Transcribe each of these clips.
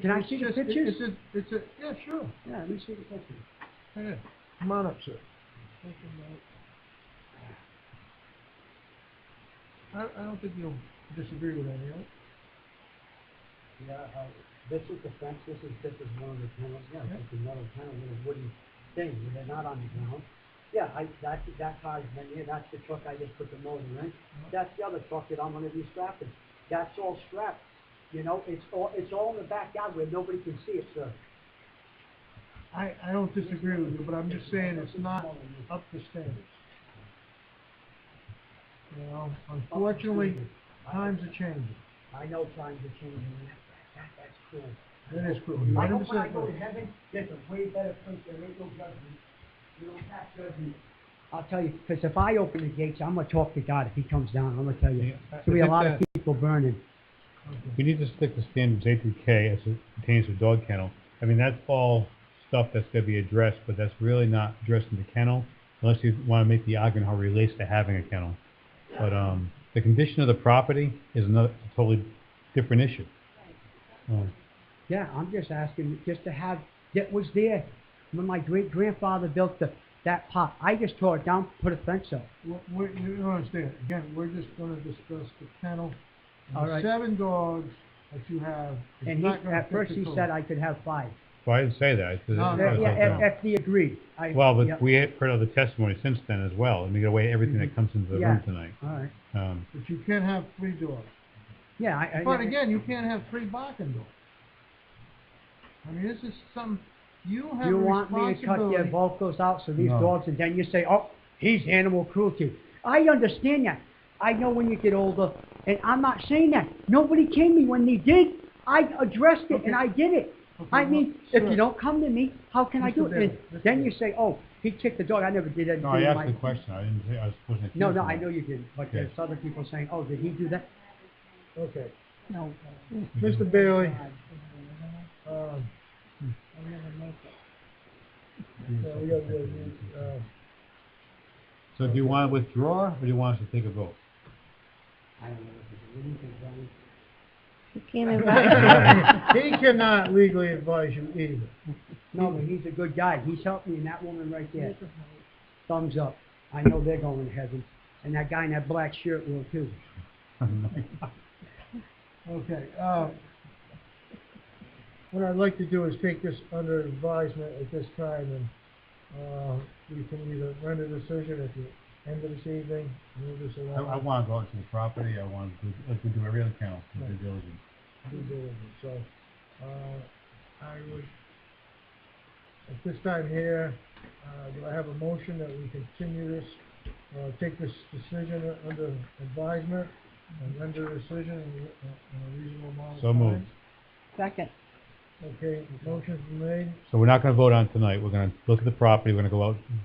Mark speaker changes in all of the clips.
Speaker 1: Can I see the
Speaker 2: It's-
Speaker 1: pictures?
Speaker 2: It's a, it's a, yeah, sure.
Speaker 1: Yeah, let me see the pictures.
Speaker 2: Yeah. Come on up, sir. I, I don't think you'll disagree with any of it.
Speaker 3: Yeah, uh, this is the fence, this is, this is one of the panels, yeah,
Speaker 2: Yeah.
Speaker 3: it's a metal panel, little wooden thing, they're not on the ground. Yeah, I, that, that car's been here, that's the truck I just put the motor in,
Speaker 1: Uh-huh.
Speaker 3: that's the other truck that I'm gonna be strapping, that's all strapped, you know, it's all, it's all in the backyard where nobody can see it, sir.
Speaker 2: I, I don't disagree with you, but I'm just saying it's not
Speaker 3: Oh,
Speaker 2: up to standards. You know, unfortunately, times are changing.
Speaker 3: I know times are changing, and that, that, that's cool.
Speaker 2: That is true.
Speaker 3: I hope when I
Speaker 2: 100%
Speaker 3: go to
Speaker 2: true.
Speaker 3: heaven, there's a way better place, there ain't no judgment, you don't have judgment. I'll tell you, because if I open the gates, I'm gonna talk to God if he comes down, I'm gonna tell you.
Speaker 4: Yeah.
Speaker 3: There'll be a lot of people burning.
Speaker 4: We need to stick to standards A through K as it pertains to dog kennel. I mean, that's all stuff that's going to be addressed, but that's really not addressed in the kennel unless you want to make the argument how it relates to having a kennel. But um, the condition of the property is another totally different issue. Um,
Speaker 3: Yeah, I'm just asking, just to have, that was there when my great grandfather built the, that pot. I just tore it down, put a fence up.
Speaker 2: We're- we're- You don't understand. Again, we're just gonna discuss the kennel. and the
Speaker 3: All right.
Speaker 2: Seven dogs that you have. it's
Speaker 3: And he,
Speaker 2: not gonna
Speaker 3: at
Speaker 2: fit
Speaker 3: first
Speaker 2: the
Speaker 3: he
Speaker 2: code.
Speaker 3: said I could have five.
Speaker 4: well, I didn't say that. I said-
Speaker 2: No,
Speaker 3: Yeah,
Speaker 2: no,
Speaker 4: I said-
Speaker 2: no.
Speaker 3: yeah, if, if he agreed. I-
Speaker 4: Well, but
Speaker 3: yeah. Mm-hmm.
Speaker 4: we have heard other testimony since then as well, and we got away everything that comes into the
Speaker 3: Yeah.
Speaker 4: room tonight.
Speaker 3: All right.
Speaker 4: Um,
Speaker 2: But you can't have three dogs.
Speaker 3: Yeah, I, I.
Speaker 2: But again, you can't have three barking dogs. I mean, this is some, you have
Speaker 3: You
Speaker 2: a
Speaker 3: want me to cut their
Speaker 2: responsibility.
Speaker 3: vocals out so these
Speaker 4: No.
Speaker 3: dogs, and then you say, oh, he's animal cruelty. I understand that. I know when you get older, and I'm not saying that. Nobody came to me when they did. I addressed it
Speaker 2: Okay.
Speaker 3: and I did it.
Speaker 2: Okay,
Speaker 3: I
Speaker 2: well,
Speaker 3: mean, if
Speaker 2: sure.
Speaker 3: you don't come to me, how can I
Speaker 2: Mr.
Speaker 3: do it? And
Speaker 2: Bailey, Mr.
Speaker 3: then you
Speaker 2: Bailey.
Speaker 3: say, oh, he kicked the dog. I never did anything.
Speaker 4: no, I
Speaker 3: in
Speaker 4: asked
Speaker 3: my-
Speaker 4: the question. I didn't say I was supposed to.
Speaker 3: No, no, I know you didn't. But
Speaker 4: Okay.
Speaker 3: there's other people saying, oh, did he do that?
Speaker 2: Okay.
Speaker 5: No.
Speaker 2: Mr. Bailey, um,
Speaker 5: I'll never make it.
Speaker 2: yeah, we got the, uh,
Speaker 4: So do you want to withdraw, or do you want us to take a vote?
Speaker 3: I don't know. if it's anything, Johnny.
Speaker 5: You can't invite me.
Speaker 2: He cannot legally advise you either.
Speaker 3: No, but he's a good guy. He's helping me, and that woman right there. Thumbs up. I know they're going to heaven. And that guy in that black shirt will too.
Speaker 2: Okay, uh, what I'd like to do is take this under advisement at this time, and, uh, you can either render a decision at the end of this evening, move this
Speaker 4: I,
Speaker 2: around.
Speaker 4: I want to go out to the property, I want to, like we do every other kennel, due diligence.
Speaker 2: due diligence. So, uh, I would, at this time here, uh, do I have a motion that we continue this, uh, take this decision under advisement and render a decision in a- in a reasonable amount of
Speaker 4: So
Speaker 2: time?
Speaker 4: moved.
Speaker 5: Second.
Speaker 2: Okay, motion's been made.
Speaker 4: So we're not going to vote on tonight, we're going to look at the property, we're going to go out, and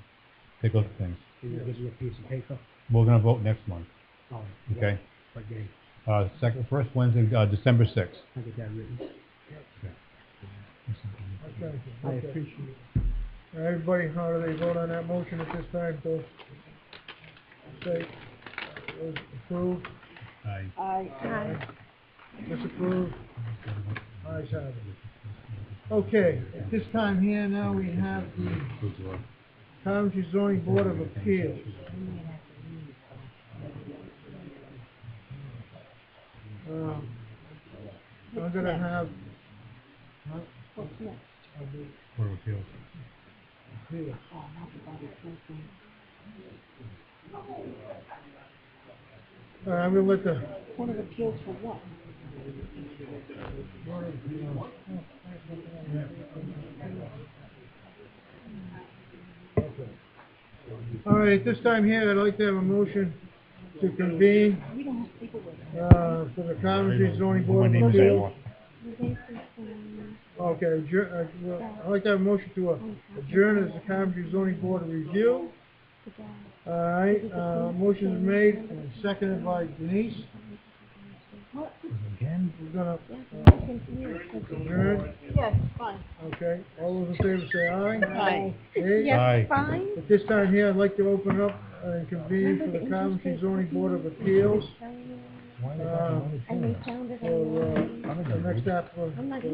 Speaker 4: take a look at things.
Speaker 3: Can you give me a piece of paper?
Speaker 4: We're going to vote next month,
Speaker 3: Oh,
Speaker 4: okay?
Speaker 3: But yeah,
Speaker 4: Uh, second, first Wednesday, uh, December sixth.
Speaker 3: I get that written.
Speaker 2: Okay,
Speaker 3: I
Speaker 2: okay.
Speaker 3: appreciate it.
Speaker 2: Now, everybody, how do they vote on that motion at this time, Bill? Say, uh, was approved,
Speaker 4: I,
Speaker 5: Aye.
Speaker 2: disapproved, ayes have it. Okay, at this time here now, we have the Township Zoning Board of Appeals. Um, Uh, I'm gonna have, uh, huh,
Speaker 5: What's next?
Speaker 2: I'll do
Speaker 4: Board of Appeals.
Speaker 2: appeals.
Speaker 5: Oh, not the body closing.
Speaker 2: Uh, I'm gonna let the
Speaker 5: Board of Appeals for what?
Speaker 2: Board of Appeals, all right, at this time here, I'd like to have a motion to convene,
Speaker 5: We don't have people with us.
Speaker 2: uh, for the Township Zoning Board of
Speaker 4: Wouldn't even
Speaker 2: Appeals.
Speaker 4: say
Speaker 5: We're basically, um,
Speaker 2: Okay, adjourn, uh, well, I'd like to have a motion to uh, adjourn as the Township Zoning Board of Review.
Speaker 5: the guy.
Speaker 2: All right, uh, motion is made and seconded by Denise.
Speaker 5: What?
Speaker 4: Again?
Speaker 2: We're gonna
Speaker 5: Yeah, I can
Speaker 2: adjourn,
Speaker 5: Yes, fine.
Speaker 2: okay? All those in favor say aye.
Speaker 5: Aye.
Speaker 2: Okay?
Speaker 4: Aye.
Speaker 5: Yes, fine.
Speaker 2: At this time here, I'd like to open up and convene for the Coventry Zoning Board of Appeals.
Speaker 5: And
Speaker 2: Uh,
Speaker 5: they found it
Speaker 2: for,
Speaker 5: online.
Speaker 2: uh, the next app, uh,
Speaker 5: I'm not